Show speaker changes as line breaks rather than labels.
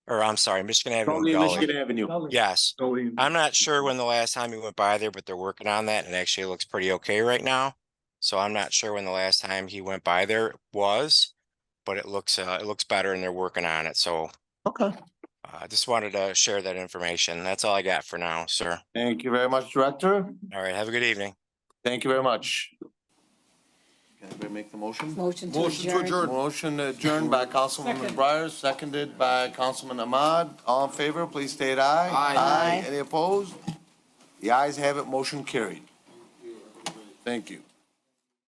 Only
in
in
Gully.
Michigan Avenue.
Gully.
Yes,
Gully and-
I'm not sure when the last time we went by there, but they're working on that and it actually looks pretty okay right now. So I'm not sure when the last time he went by there was, but it looks, uh, it looks better and they're working on it. So uh,
Okay,
I just wanted to share that information. That's all I got for now, sir.
thank you very much, Director.
All right, have a good evening.
Thank you very much. Can anybody make the motion?
Motion to
Motion to
adjourn.
adjourn.
Motion adjourned by Councilwoman Breyer, seconded by Councilman Ahmad. All in favor, please state aye.
Aye.
Any opposed? The ayes have it, motion carried. Thank you.